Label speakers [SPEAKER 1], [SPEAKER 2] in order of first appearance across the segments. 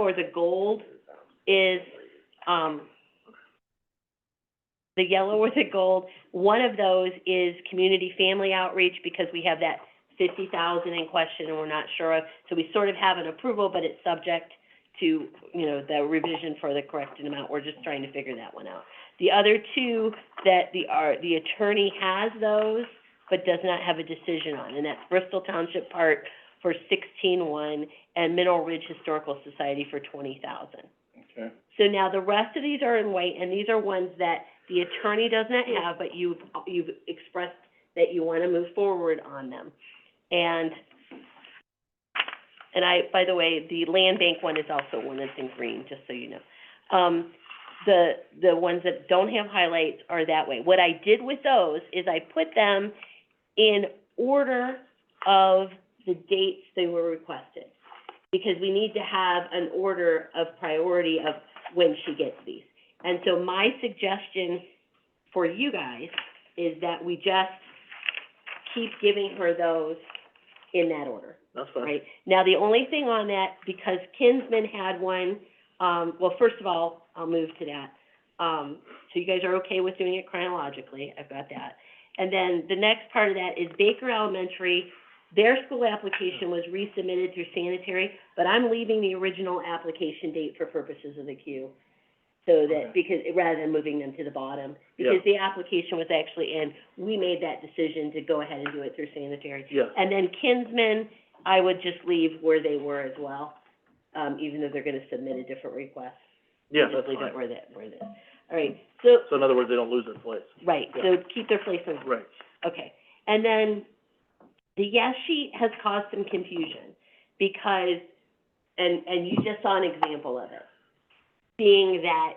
[SPEAKER 1] or the gold is, um, the yellow or the gold, one of those is community family outreach because we have that fifty thousand in question and we're not sure of. So we sort of have an approval, but it's subject to, you know, the revision for the corrected amount. We're just trying to figure that one out. The other two that the, are, the attorney has those, but does not have a decision on, and that's Bristol Township Park for sixteen-one and Mineral Ridge Historical Society for twenty thousand.
[SPEAKER 2] Okay.
[SPEAKER 1] So now the rest of these are in white, and these are ones that the attorney does not have, but you've, you've expressed that you wanna move forward on them. And, and I, by the way, the land bank one is also one that's in green, just so you know. Um, the, the ones that don't have highlights are that way. What I did with those is I put them in order of the dates they were requested because we need to have an order of priority of when she gets these. And so my suggestion for you guys is that we just keep giving her those in that order,
[SPEAKER 2] That's
[SPEAKER 1] right? Now, the only thing on that, because Kinsman had one, um, well, first of all, I'll move to that. Um, so you guys are okay with doing it chronologically, I've got that. And then the next part of that is Baker Elementary, their school application was resubmitted through sanitary, but I'm leaving the original application date for purposes of the queue. So
[SPEAKER 2] Okay.
[SPEAKER 1] that, because, rather than moving them to the bottom,
[SPEAKER 2] Yeah.
[SPEAKER 1] because the application was actually in, we made that decision to go ahead and do it through sanitary.
[SPEAKER 2] Yeah,
[SPEAKER 1] And then Kinsmen, I would just leave where they were as well, um, even though they're gonna submit a different request.
[SPEAKER 2] yeah,
[SPEAKER 1] Just
[SPEAKER 2] that's
[SPEAKER 1] leave it
[SPEAKER 2] fine.
[SPEAKER 1] where that, where that, all right, so,
[SPEAKER 2] So in other words, they don't lose their place.
[SPEAKER 1] right, so keep their place in
[SPEAKER 2] Right.
[SPEAKER 1] Okay, and then the yes sheet has caused some confusion because, and, and you just saw an example of it. Being that,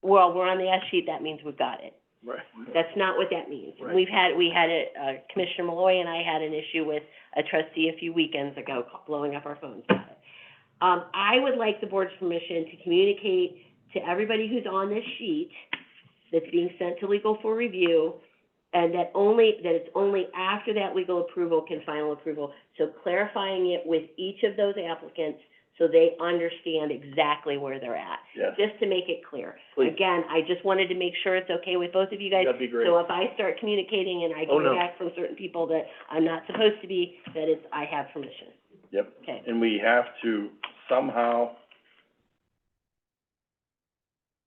[SPEAKER 1] well, we're on the yes sheet, that means we've got it.
[SPEAKER 2] Right.
[SPEAKER 1] That's not what that means.
[SPEAKER 2] Right.
[SPEAKER 1] We've had, we had a, uh, Commissioner Malloy and I had an issue with a trustee a few weekends ago ca- blowing up our phones about it. Um, I would like the board's permission to communicate to everybody who's on this sheet that's being sent to legal for review, and that only, that it's only after that legal approval can final approval. So clarifying it with each of those applicants so they understand exactly where they're at,
[SPEAKER 2] Yeah,
[SPEAKER 1] just to make it clear.
[SPEAKER 2] please,
[SPEAKER 1] Again, I just wanted to make sure it's okay with both of you guys.
[SPEAKER 2] that'd be great.
[SPEAKER 1] So if I start communicating and I
[SPEAKER 2] Oh,
[SPEAKER 1] get
[SPEAKER 2] no.
[SPEAKER 1] back from certain people that I'm not supposed to be, that it's, I have permission.
[SPEAKER 2] Yep.
[SPEAKER 1] Okay,
[SPEAKER 2] And we have to somehow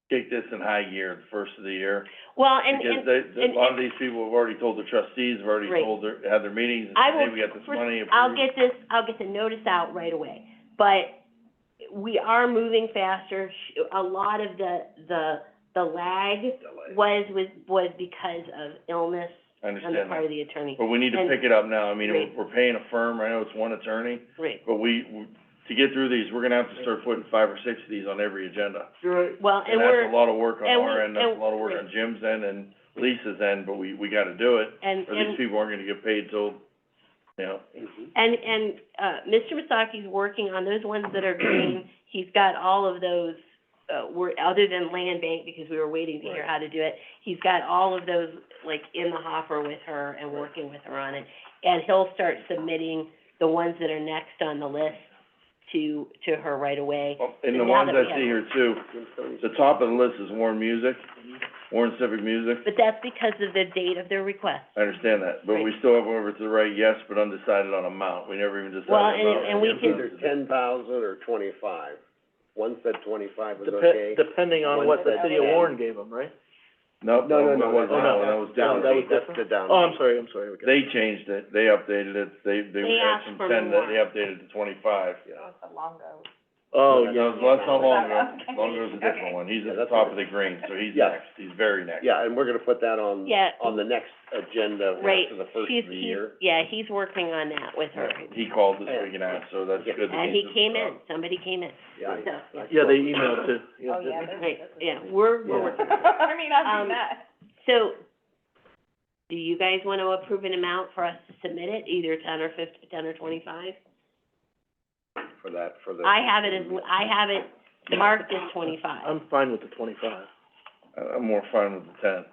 [SPEAKER 2] kick this in high gear the first of the year.
[SPEAKER 1] well, and,
[SPEAKER 2] Because
[SPEAKER 1] and,
[SPEAKER 2] they, they- a
[SPEAKER 1] and-
[SPEAKER 2] lot of these people have already told the trustees, have already
[SPEAKER 1] Right.
[SPEAKER 2] told their, had their meetings, and
[SPEAKER 1] I
[SPEAKER 2] said, hey,
[SPEAKER 1] will-
[SPEAKER 2] we got this
[SPEAKER 1] first-
[SPEAKER 2] money approved.
[SPEAKER 1] I'll get this, I'll get the notice out right away. But we are moving faster. Sh- A lot of the, the, the lag was, was, was because of illness
[SPEAKER 2] I
[SPEAKER 1] on the
[SPEAKER 2] understand
[SPEAKER 1] part
[SPEAKER 2] that.
[SPEAKER 1] of the attorney.
[SPEAKER 2] But we need to
[SPEAKER 1] and-
[SPEAKER 2] pick it up now. I mean,
[SPEAKER 1] Right.
[SPEAKER 2] we're, we're paying a firm, I know it's one attorney,
[SPEAKER 1] Right.
[SPEAKER 2] but we, we- to get through these, we're gonna have to start putting five or six of these on every agenda.
[SPEAKER 1] Well, and we're,
[SPEAKER 2] that's a lot of work on
[SPEAKER 1] and we-
[SPEAKER 2] our end, that's
[SPEAKER 1] and-
[SPEAKER 2] a lot of work on Jim's end and Lisa's end, but we, we gotta do it,
[SPEAKER 1] and,
[SPEAKER 2] or
[SPEAKER 1] and
[SPEAKER 2] these people aren't gonna get paid till, you know.
[SPEAKER 1] And, and, uh, Mr. Masaki's working on those ones that are green, he's got all of those, uh, were, other than land bank, because we were waiting to hear
[SPEAKER 2] Right.
[SPEAKER 1] how to do it. He's got all of those, like, in the hopper with her and
[SPEAKER 2] Right.
[SPEAKER 1] working with her on it. And he'll start submitting the ones that are next on the list to, to her right away.
[SPEAKER 2] Well, And
[SPEAKER 1] So
[SPEAKER 2] the
[SPEAKER 1] now
[SPEAKER 2] ones
[SPEAKER 1] that
[SPEAKER 2] I
[SPEAKER 1] we have-
[SPEAKER 2] see here too, the top of the list is Warren Music, Warren Civic Music,
[SPEAKER 1] But that's because of the date of their request.
[SPEAKER 2] I understand that, but we
[SPEAKER 1] Right.
[SPEAKER 2] still have over to the right, yes, but undecided on amount, we never even decided
[SPEAKER 1] Well,
[SPEAKER 2] about.
[SPEAKER 1] and- and we
[SPEAKER 2] it.
[SPEAKER 1] can-
[SPEAKER 3] Either ten thousand or twenty-five. One said twenty-five was okay.
[SPEAKER 4] Depe- depending on
[SPEAKER 3] One
[SPEAKER 4] what the
[SPEAKER 3] said
[SPEAKER 4] city of
[SPEAKER 3] ten.
[SPEAKER 4] Warren gave them, right?
[SPEAKER 2] No,
[SPEAKER 3] No,
[SPEAKER 2] no,
[SPEAKER 3] no,
[SPEAKER 2] that
[SPEAKER 3] no,
[SPEAKER 2] wasn't,
[SPEAKER 3] no,
[SPEAKER 2] that
[SPEAKER 3] no,
[SPEAKER 2] one, that was down.
[SPEAKER 3] Down, that was,
[SPEAKER 4] Downbeat.
[SPEAKER 3] that's the down.
[SPEAKER 4] Oh, I'm sorry, I'm sorry, we got
[SPEAKER 2] They changed it, they updated it, they, they
[SPEAKER 1] They
[SPEAKER 2] had
[SPEAKER 1] asked
[SPEAKER 2] some
[SPEAKER 1] for
[SPEAKER 2] ten that they
[SPEAKER 1] more.
[SPEAKER 2] updated to twenty-five.
[SPEAKER 4] Oh,
[SPEAKER 2] That
[SPEAKER 4] yeah,
[SPEAKER 2] was, that's not Longo,
[SPEAKER 1] Okay.
[SPEAKER 2] Longo's a different one, he's at the
[SPEAKER 3] That's
[SPEAKER 2] top of
[SPEAKER 3] what
[SPEAKER 2] the green, so he's
[SPEAKER 3] Yeah.
[SPEAKER 2] next, he's very next.
[SPEAKER 3] Yeah, and we're gonna put that on,
[SPEAKER 1] Yeah.
[SPEAKER 3] Um, on the next agenda
[SPEAKER 1] Right.
[SPEAKER 3] after the first
[SPEAKER 1] He's,
[SPEAKER 3] of the
[SPEAKER 1] he's,
[SPEAKER 3] year.
[SPEAKER 1] yeah, he's working on that with her.
[SPEAKER 2] He called this
[SPEAKER 3] Yeah.
[SPEAKER 2] week and asked, so that's
[SPEAKER 3] Yeah.
[SPEAKER 2] good. that
[SPEAKER 1] And he
[SPEAKER 2] he's-
[SPEAKER 1] came in, somebody came in,
[SPEAKER 3] Yeah,
[SPEAKER 1] so, yeah.
[SPEAKER 4] yeah, they emailed too, yeah,
[SPEAKER 5] Oh,
[SPEAKER 4] didn't they?
[SPEAKER 1] Right, yeah, we're, we're
[SPEAKER 3] Yeah.
[SPEAKER 1] working.
[SPEAKER 5] I mean, I've
[SPEAKER 1] Um,
[SPEAKER 5] seen that.
[SPEAKER 1] So, do you guys wanna approve an amount for us to submit it, either ten or fif- ten or twenty-five?
[SPEAKER 3] For that, for the.
[SPEAKER 1] I have it as, I have it marked as twenty-five.
[SPEAKER 4] I'm fine with the twenty-five.
[SPEAKER 2] I- I'm more fine with the ten.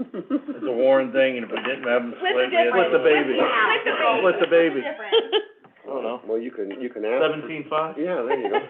[SPEAKER 2] It's a
[SPEAKER 3] It's
[SPEAKER 2] Warren thing, and if it didn't have him split, we had.
[SPEAKER 4] Split the
[SPEAKER 2] to-
[SPEAKER 4] baby.
[SPEAKER 5] With the
[SPEAKER 4] With the baby.
[SPEAKER 5] difference.
[SPEAKER 4] I don't know.
[SPEAKER 3] Well, you can, you can ask.
[SPEAKER 4] Seventeen-five?
[SPEAKER 3] Yeah, there you go.